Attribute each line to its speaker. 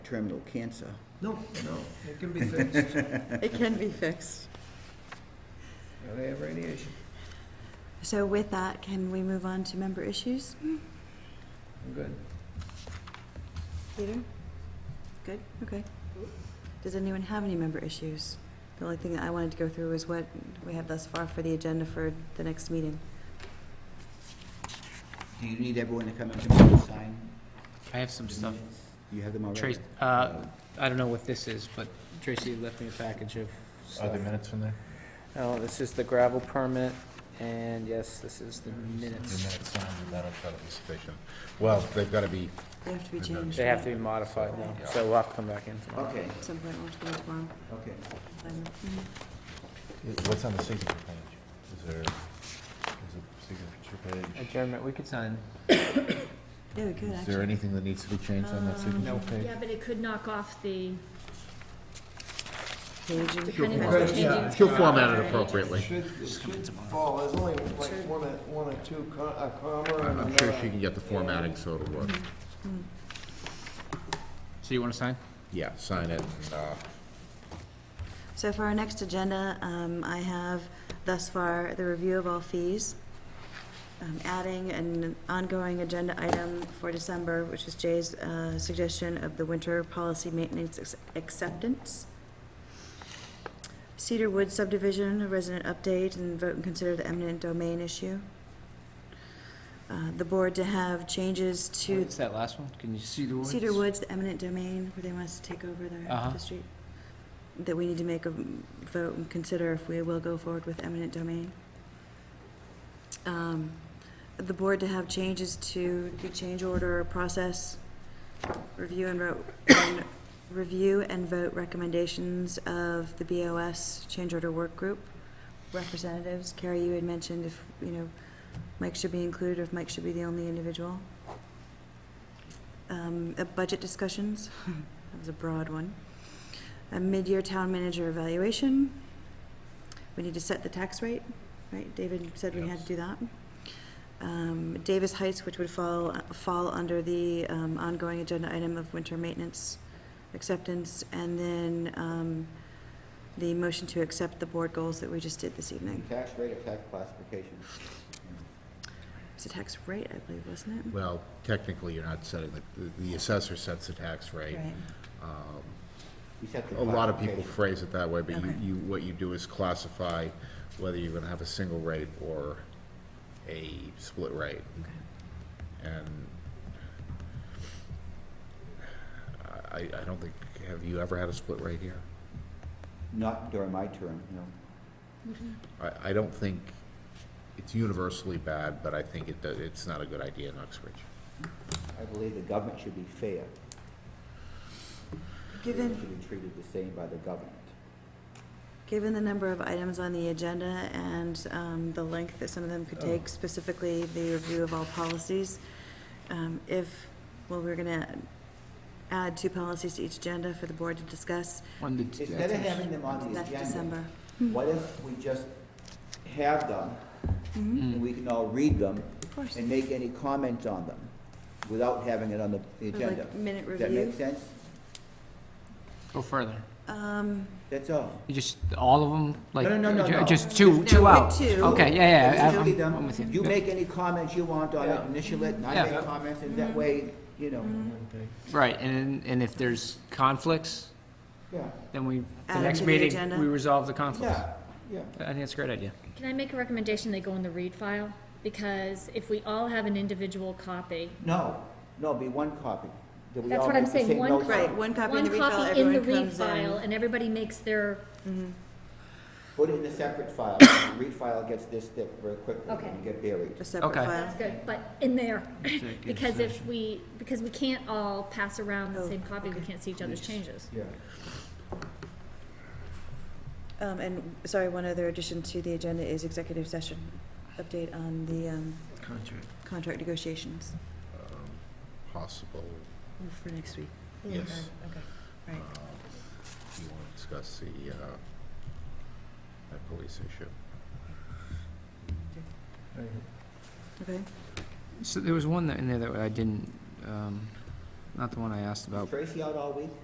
Speaker 1: terminal cancer.
Speaker 2: No, no, it can be fixed.
Speaker 3: It can be fixed.
Speaker 2: Now They have radiation.
Speaker 4: So with that, can we move on to member issues?
Speaker 2: I'm good.
Speaker 4: Peter? Good, okay. Does anyone have any member issues? The only thing that I wanted to go through was what we have thus far for the agenda for the next meeting.
Speaker 1: Do you need everyone to come up to me and sign?
Speaker 5: I have some stuff.
Speaker 1: You have them already?
Speaker 5: Trace, uh, I don't know what this is, but Tracy left me a package of stuff.
Speaker 6: minutes from there?
Speaker 5: Oh, this is the gravel permit, and yes, this is the
Speaker 6: The
Speaker 5: minutes.
Speaker 6: minutes uh, signed, that'll probably be sufficient. Well, they've got to be,
Speaker 4: They have to be
Speaker 6: They're done.
Speaker 4: changed.
Speaker 5: They have to be modified now, so we'll have to come back in tomorrow.
Speaker 1: Okay,
Speaker 4: At some point, we'll have to go tomorrow.
Speaker 1: okay.
Speaker 4: Um,
Speaker 5: Mm-hmm.
Speaker 6: what's on the signature page? Is there, is a signature page?
Speaker 5: Adjournment, we could sign.
Speaker 4: Yeah, we could,
Speaker 6: Is there
Speaker 4: actually.
Speaker 6: anything that needs to be changed on
Speaker 5: Um,
Speaker 6: that signature
Speaker 5: Nope.
Speaker 6: page?
Speaker 7: Yeah, but it could knock off the,
Speaker 4: Paging.
Speaker 7: depending on
Speaker 2: Good,
Speaker 7: the
Speaker 2: yeah.
Speaker 7: changes.
Speaker 6: She'll format it appropriately.
Speaker 2: Should, it should fall, there's only like one, or- one or two, co- a comma and
Speaker 6: I'm sure
Speaker 2: another.
Speaker 6: she can get the formatting so it'll work.
Speaker 5: Hmm. So you wanna sign?
Speaker 6: Yeah, sign it and, uh,
Speaker 4: So for our next agenda, um, I have thus far the review of all fees, um, adding an ongoing agenda item for December, which is Jay's uh, suggestion of the winter policy maintenance ex- acceptance. Cedar Woods subdivision, a resident update, and vote and consider the eminent domain issue. Uh, The board to have changes to
Speaker 5: What's that last one? Can you see the words?
Speaker 4: Cedar Woods, the eminent domain, where they want us to take over the,
Speaker 5: Uh-huh.
Speaker 4: the street. That we need to make a vote and consider if we will go forward with eminent domain. Um, The board to have changes to the change order process, review and vote, and review and vote recommendations of the BOS change order work group representatives. Carrie, you had mentioned if, you know, Mike should be included, or if Mike should be the only individual. Um, uh, budget discussions, that was a broad one. A mid-year town manager evaluation. We need to set the tax rate, right? David said we had to do that. Um, Davis Heights, which would fall, fall under the, um, ongoing agenda item of winter maintenance acceptance, and then, um, the motion to accept the board goals that we just did this evening.
Speaker 1: Tax rate or tax classification?
Speaker 4: It's a tax rate, I believe, wasn't it?
Speaker 6: well, technically, you're not setting, the, the assessor sets the tax rate.
Speaker 4: Right.
Speaker 6: Um,
Speaker 1: You set the
Speaker 6: A lot of people
Speaker 1: classification.
Speaker 6: phrase it that way, but you,
Speaker 4: Okay.
Speaker 6: you, what you do is classify whether you're gonna have a single rate or a split rate. And I, I don't think, have you ever had a split rate here?
Speaker 1: Not during my term, no.
Speaker 6: I, I don't think, it's universally bad, but I think it, does- it's not a good idea in Uxbridge.
Speaker 1: I believe the government should be fair. Everyone
Speaker 4: Given,
Speaker 1: Should be treated the same by the government.
Speaker 4: given the number of items on the agenda and um, the length that some of them could
Speaker 5: Oh.
Speaker 4: take, specifically the review of all policies, um, if, well, we're going to add two policies to each agenda for the board to discuss,
Speaker 5: One that's-
Speaker 1: Instead of having them on the
Speaker 4: that's
Speaker 1: agenda, Hmm.
Speaker 4: December.
Speaker 1: what if we just have them?
Speaker 5: Mm.
Speaker 1: And we can all read them
Speaker 4: Mm-hmm. Of course.
Speaker 1: and make any comments on them without having it on the
Speaker 4: Or
Speaker 1: agenda.
Speaker 4: Like minute
Speaker 1: Does that
Speaker 4: review.
Speaker 1: make sense?
Speaker 5: Go further.
Speaker 4: Um,
Speaker 1: That's all.
Speaker 5: You just, all of them, like,
Speaker 1: No, no, no, no,
Speaker 5: ju-
Speaker 1: no.
Speaker 5: just two,
Speaker 4: Just
Speaker 5: two
Speaker 4: now
Speaker 5: out? Oh.
Speaker 4: with two.
Speaker 5: Okay, yeah, yeah, I-
Speaker 1: Just
Speaker 5: I'm-
Speaker 1: read them.
Speaker 5: I'm with you.
Speaker 1: You make any comments you want on it,
Speaker 2: Yeah.
Speaker 1: initial it, and I
Speaker 5: Yeah. Mm-hmm.
Speaker 1: make comments, and that
Speaker 7: Mm-hmm.
Speaker 1: way, you know,
Speaker 5: Right, and, and if there's conflicts,
Speaker 1: yeah,
Speaker 5: then we,
Speaker 4: Add
Speaker 5: the
Speaker 4: it
Speaker 5: next
Speaker 4: to the
Speaker 5: meeting,
Speaker 4: agenda.
Speaker 5: we resolve the conflicts.
Speaker 1: yeah, yeah.
Speaker 5: I think that's a great idea.
Speaker 7: Can I make a recommendation they go in the read file? Because if we all have an individual copy,
Speaker 1: No, no, be one copy. That we
Speaker 7: That's
Speaker 1: all
Speaker 7: what I'm
Speaker 1: make the
Speaker 7: saying,
Speaker 1: same
Speaker 7: one
Speaker 1: notes on.
Speaker 4: Right, one copy in
Speaker 7: one
Speaker 4: the refill,
Speaker 7: copy in the
Speaker 4: everyone
Speaker 7: read
Speaker 4: comes
Speaker 7: file,
Speaker 4: in.
Speaker 7: and everybody makes their,
Speaker 1: Put it in a separate file. Read file gets this thick very quickly
Speaker 7: Okay.
Speaker 1: and get buried.
Speaker 4: A separate
Speaker 5: Okay.
Speaker 7: that's
Speaker 4: file.
Speaker 7: good, but in there. Because if we, because we can't all pass around the
Speaker 4: Oh,
Speaker 7: same copy, we can't see each other's changes.
Speaker 1: Yeah.
Speaker 4: Um, And, sorry, one other addition to the agenda is executive session, update on the um,
Speaker 2: Contract.
Speaker 4: contract negotiations
Speaker 6: Possible,
Speaker 4: for next week.
Speaker 6: yes. Um,
Speaker 4: Right.
Speaker 6: You want to discuss the, uh, that police issue?
Speaker 4: Okay.
Speaker 5: So there was one that- in there that I didn't, um, not the one I asked about,
Speaker 1: Tracy out all week?